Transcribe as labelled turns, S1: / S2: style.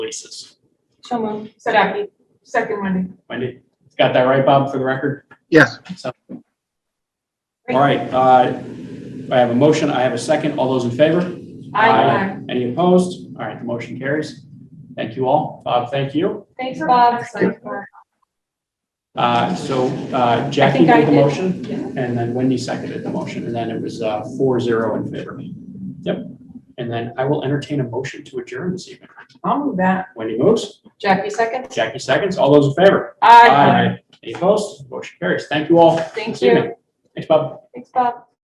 S1: basis.
S2: So moved.
S3: Second, second Wendy.
S1: Wendy, got that right, Bob, for the record?
S4: Yes.
S1: So- All right, uh, I have a motion, I have a second. All those in favor? Any opposed? All right, the motion carries. Thank you all. Bob, thank you.
S2: Thanks, Bob.
S1: Uh, So uh, Jackie
S2: think I
S1: made the
S2: did.
S1: motion,
S3: Yeah.
S1: and then Wendy seconded the motion, and then it was uh, four zero in favor. Yep. And then I will entertain a motion to adjourn this evening.
S3: I'll move that.
S1: Wendy moves,
S2: Jackie, second?
S1: Jackie seconds. All those in favor? Any opposed? Motion carries. Thank you all.
S2: Thank
S1: See you.
S2: you.
S1: Thanks, Bob.
S2: Thanks, Bob.